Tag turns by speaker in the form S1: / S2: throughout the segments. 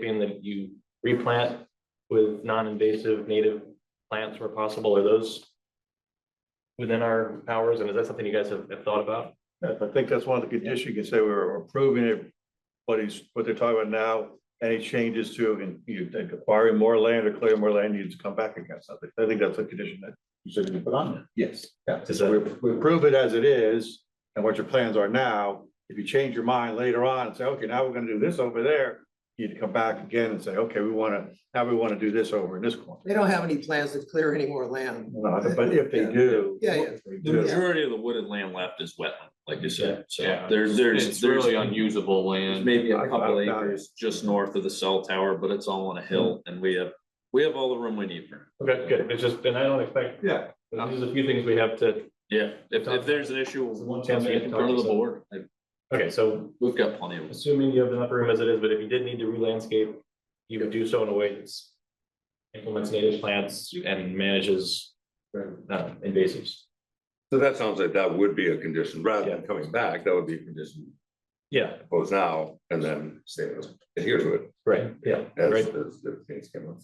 S1: being that you replant with non-invasive native plants where possible, are those within our powers, and is that something you guys have, have thought about?
S2: Yes, I think that's one of the conditions, you can say we were approving it, but he's, what they're talking about now, any changes to, and you think acquiring more land or clearing more land, you just come back against something. I think that's a condition that you said you put on there. Yes. Yeah,
S1: Does
S2: we,
S1: that-
S2: we approve it as it is, and what your plans are now, if you change your mind later on and say, okay, now we're gonna do this over there, you'd come back again and say, okay, we wanna, now we wanna do this over in this corner.
S3: They don't have any plans to clear any more land.
S2: No, But if they do.
S3: Yeah, yeah.
S2: if they
S4: The
S2: do-
S4: majority of the wooded land left is wetland, like you said, so
S5: Yeah.
S4: there's,
S5: It's
S4: there's,
S5: really
S4: there's
S5: unusable land.
S4: maybe a
S2: I- I
S4: couple
S2: doubt it.
S4: acres just north of the cell tower, but it's all on a hill and we have, we have all the room we need for. it.
S1: Okay, good, it's just, and I don't expect,
S2: Yeah,
S1: there's a few things we have to,
S4: Yeah, if, if there's an issue, we'll
S1: Sometimes we
S4: get in front of the board, Like,
S1: okay, so
S4: we've got plenty of.
S1: assuming you have enough room as it is, but if you did need to re-landscape, you would do so in a way that's implements native plants and manages uh, invasives.
S6: So that sounds like that would be a condition, rather than
S1: Yeah.
S6: coming back, that would be a condition,
S1: Yeah,
S6: both now and then say, adhere to it.
S1: right, yeah,
S6: As,
S1: right,
S6: as the things came up.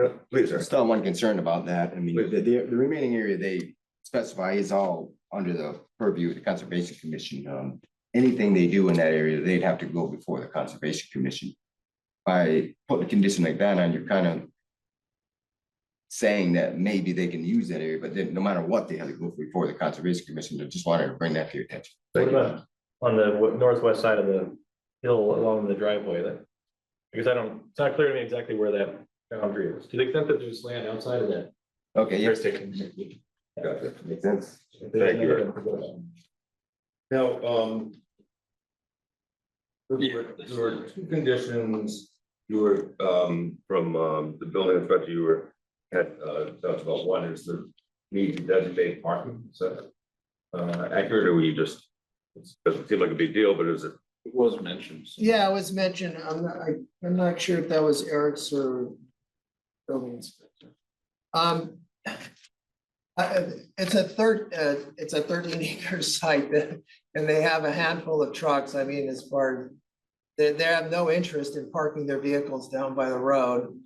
S6: Yeah, please,
S7: I'm
S6: sir.
S7: Still, have one concern about that. I mean, the, the the remaining area they specify is all under the purview of the Conservation Commission. Um, anything they do in that area, they'd have to go before the Conservation Commission. By putting a condition like that on, you're kind of saying that maybe they can use that area, but then no matter what, they have to go before the Conservation Commission. I just wanted to bring that to your attention.
S1: What about on the wa- northwest side of the hill along the driveway that? Because I don't, it's not clear to me exactly where that boundary is, to the extent that there's land outside of that
S7: Okay, yeah,
S1: jurisdiction.
S6: Gotcha.
S7: makes sense.
S6: Thank you.
S2: Now, um.
S4: Yeah.
S6: There were two conditions, you were, um, from, um, the building inspector, you were, had, uh, talked about one is the need to designate parking, so. Uh, accurate, or were you just, it doesn't seem like a big deal, but is it,
S4: It was mentioned. so.
S3: Yeah, it was mentioned, I'm, not- I, I'm not sure if that was Eric's or building inspector. Um, I- it's a third, uh, it's a thirteen acre site that, and they have a handful of trucks, I mean, as far. They, they have no interest in parking their vehicles down by the road,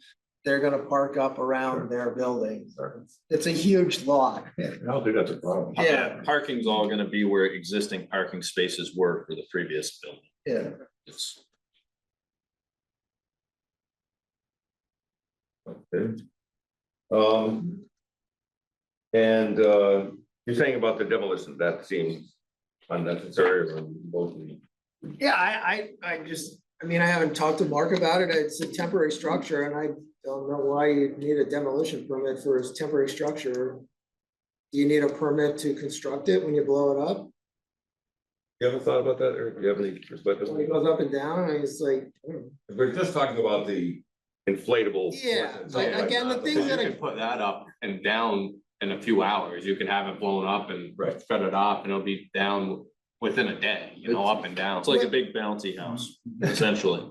S3: they're gonna park up around their building. It's a huge lot.
S2: I don't think that's a problem.
S3: Yeah.
S4: Parking's all gonna be where existing parking spaces were for the previous building.
S3: Yeah,
S4: It's,
S6: Okay. Um. And, uh, you're saying about the demolition, that seems unnecessary or remotely.
S3: yeah, I, I, I just, I mean, I haven't talked to Mark about it, it's a temporary structure, and I don't know why you need a demolition permit for a temporary structure. Do you need a permit to construct it when you blow it up,
S6: You haven't thought about that, or do you have any perspective?
S3: when it goes up and down, and it's like, hmm.
S6: We're just talking about the inflatable.
S3: Yeah,
S6: portions
S3: like,
S6: of it.
S3: again, the things
S5: You
S3: that I-
S5: could put that up and down in a few hours. You can have it blown up and
S6: Right.
S5: spread it off and it'll be down within a day, you know, up and down.
S4: it's like a big bounty house, essentially.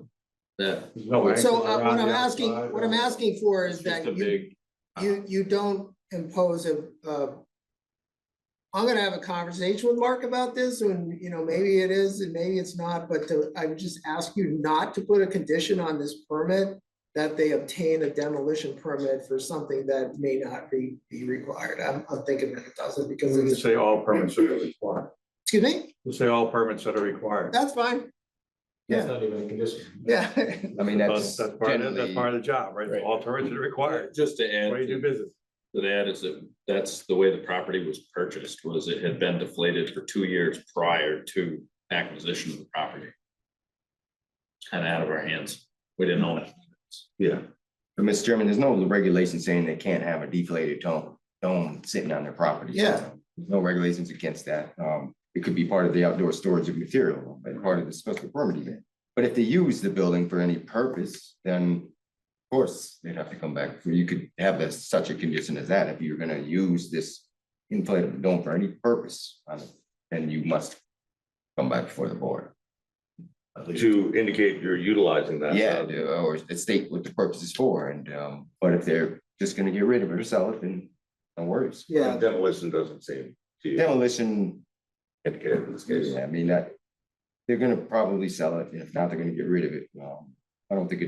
S4: Yeah.
S2: No anchors
S3: so uh,
S2: around
S3: what I'm
S2: the
S3: asking,
S2: outside,
S3: what I'm
S2: uh,
S3: asking for
S5: It's
S3: is that
S5: just a
S3: you
S5: big.
S3: you, you don't impose a, a. I'm gonna have a conversation with Mark about this, and, you know, maybe it is and maybe it's not, but to, I would just ask you not to put a condition on this permit. That they obtain a demolition permit for something that may not be, be required, I'm, I'm thinking that it doesn't, because
S2: Just
S3: it's,
S2: Say all permits are required.
S3: excuse me,
S2: Just Say all permits that are required.
S3: that's fine,
S1: That's not even a condition.
S3: yeah.
S7: I mean, that's
S2: That's part of, that's
S7: generally,
S2: part of the job, right?
S1: Right.
S2: All permits are required.
S4: Just to
S2: That's
S4: add.
S2: why you do business.
S4: to that is that that's the way the property was purchased, was it had been deflated for two years prior to acquisition of the property. It's kind of out of our hands. We didn't own it.
S6: Yeah.
S7: but Mr. Chairman, there's no regulation saying they can't have a deflated dome, dome sitting on their property.
S3: Yeah.
S7: There's no regulations against that. Um, it could be part of the outdoor storage of material, but part of the special permit event. But if they use the building for any purpose, then of course, they'd have to come back. for- You could have a- such a condition as that. If you're gonna use this inflatable dome for any purpose, on it, then you must come back before the board.
S6: To indicate you're utilizing that.
S7: Yeah,
S2: um,
S6: uh,
S7: the- or state what the purpose is for, and, um, but if they're just gonna get rid of it or sell it, then no worries.
S3: Yeah,
S6: Demolition doesn't seem to you
S7: Demolition,
S6: indicated in this case.
S7: I mean, that, they're gonna probably sell it, and if not, they're gonna get rid of it. Um, I don't think it